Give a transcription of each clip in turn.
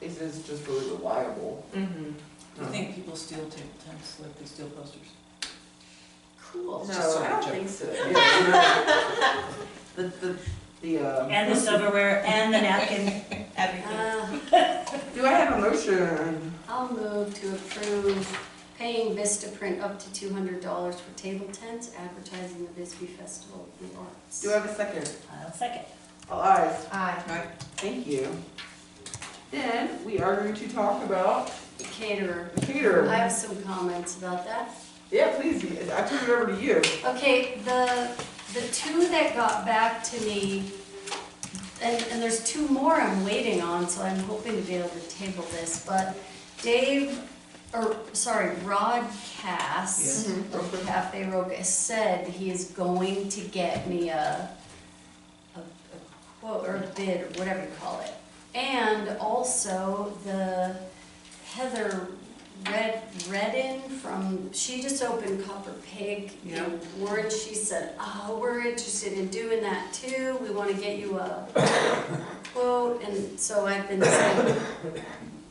it is just really reliable. Mm-hmm. Do you think people steal table tents like they steal posters? Cool. It's just No, sort I of don't joke. think so. Yeah, no. The, the, the, um. And the silverware and the napkin, everything. Uh, Do I have a motion? I'll move to approve paying Vista Print up to two hundred dollars for table tents advertising the Bisbee Festival of the Arts. Do I have a second? I'll second. All eyes. Aye. Thank you. Then we are going to talk about The Caterer. the I caterer. have some comments about that. Yeah, please, I turn it over to you. Okay, the, the two that got back to me, and, and there's two more I'm waiting on, so I'm hoping to be able to table this, but Dave, or, sorry, Rod Cass Mm-hmm. of Cafe Roca said he is going to get me a, a, a quote, or a bid, or whatever you call it. And also the Heather Red, Redden from, she just opened Copper Pig Yeah. in Warren. She said, oh, we're interested in doing that too. We want to get you a quote. And so I've been saying,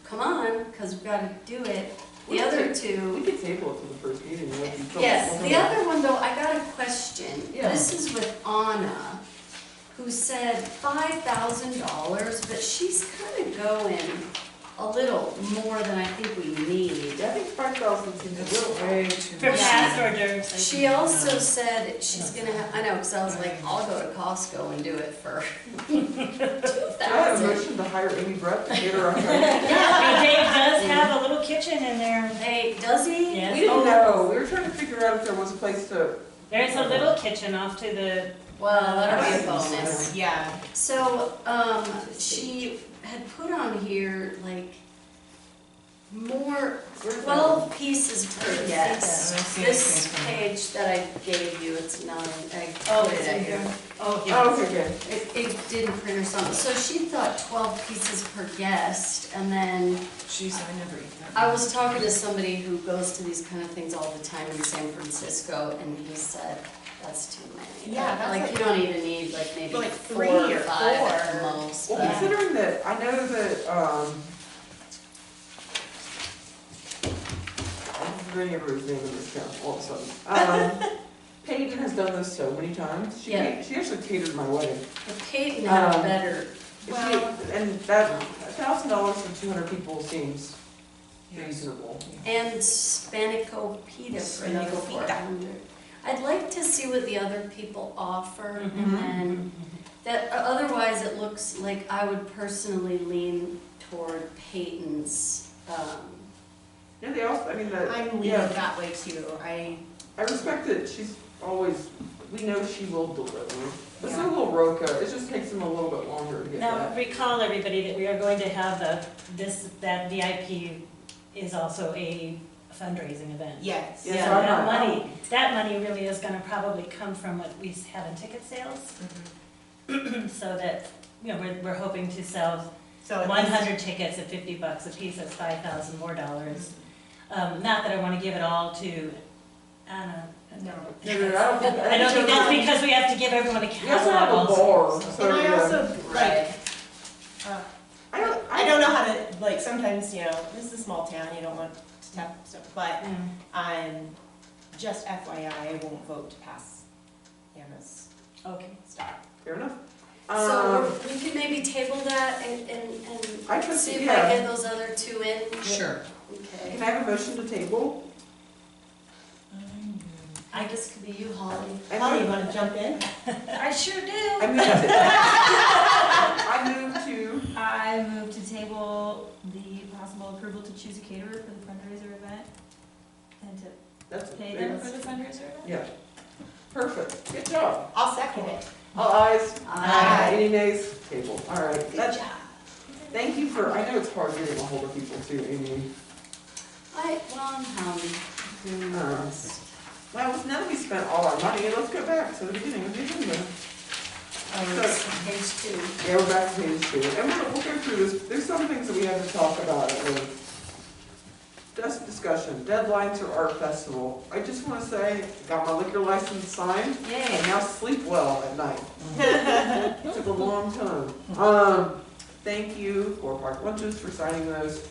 come on, because we've got to do it. The other We two, could table it for the first meeting. you know, if you don't- yes, the other one though, I got a question. Yeah. This is with Anna, who said five thousand dollars, but she's kind of going a little more than I think we need. I think five thousand seems a little high. way too For Yeah. much. past hors d'oeuvres. She also said she's gonna, ha- I know, because I was like, I'll go to Costco and do it for two Do I have a thousand. motion to hire Amy Brett to cater our company? And Dave does have a little kitchen in there. Hey, does he? We Yes. didn't know, Oh, we were trying to figure out if there was a place to. There's a little kitchen off to the, Well, that'll be a bonus. Yeah. So, um, she had put on here like more, twelve pieces per guest. This page that I gave you, it's not, I Oh, put it's it in at here. here. Oh, Oh, okay, good. It, it didn't print or something. So she thought twelve pieces per guest and then Jeez, I never eat that. I was talking to somebody who goes to these kind of things all the time in San Francisco, and he said, that's too many. Yeah, that's Like, like- you don't even need like maybe Like four three or or five at the four. most. Well, but- considering that, I know that, um, I don't remember his name in this town, all of a sudden. Um, Peyton has done this so many times. She, Yeah. she actually catered my wedding. But Peyton had a Um, better, She- Well- And that, a thousand dollars for two hundred people seems reasonable. and Spanakopita for Spanakopita. another four hundred. I'd like to see what the other people offer, Mhm. and then, that, uh, otherwise it looks like I would personally lean toward Peyton's, um, Yeah, they also, I mean, the. I'm leaning yeah, that way too. I, I respect that she's always, we know she will deliver. It's a Yeah. little roca, it just takes them a little bit longer to get now that. recall everybody that we are going to have a, this, that VIP is also a fundraising event. yes. Yeah. So so I'm not- that money, that money really is gonna probably come from what we have in ticket sales, Mhm. so that, you know, we're, we're hoping to sell So at one least- hundred tickets at fifty bucks a piece, that's five thousand more dollars. Um, not that I wanna give it all to Anna. No, No. no, no, I don't think. I don't think that's because we have to give everyone a We also have catalog a bar, also. so And I yeah. also, Right. like, uh, I don't, I don't know how to, like, sometimes, you know, this is a small town, you don't want to have stuff, but, Mm. um, just FYI, I won't vote to pass Anna's Okay. stuff. Fair enough. Um, So we're- we can maybe table that and, and, and I trust, see you- if I yeah. get those other two in? Sure. Can Okay. I have a motion to table? I guess could be you, Holly. I Holly, you move- wanna jump in? I sure I do. move to- I move to, I move to table the possible approval to choose a caterer for the fundraiser event and to that's. pay them for the fundraiser event. Yeah. Perfect, good job. I'll second it. All eyes. Aye. Any nays? Table, all right. Good That's, job. thank you for, I know it's hard getting a hold of people too, Amy. I, well, I'm Holly. doing my Uh. best. Well, now that we spent all our money, let's go back to the beginning of the agenda. Oh, it's page two. Yeah, we're back to page two, and we'll, we'll go through this, there's some things that we have to talk about, and just discussion, deadlines or art festival. I just wanna say, got my liquor license signed, and Yay. now sleep well at night. Took a long time. Um, thank you for Park Lunches for signing those.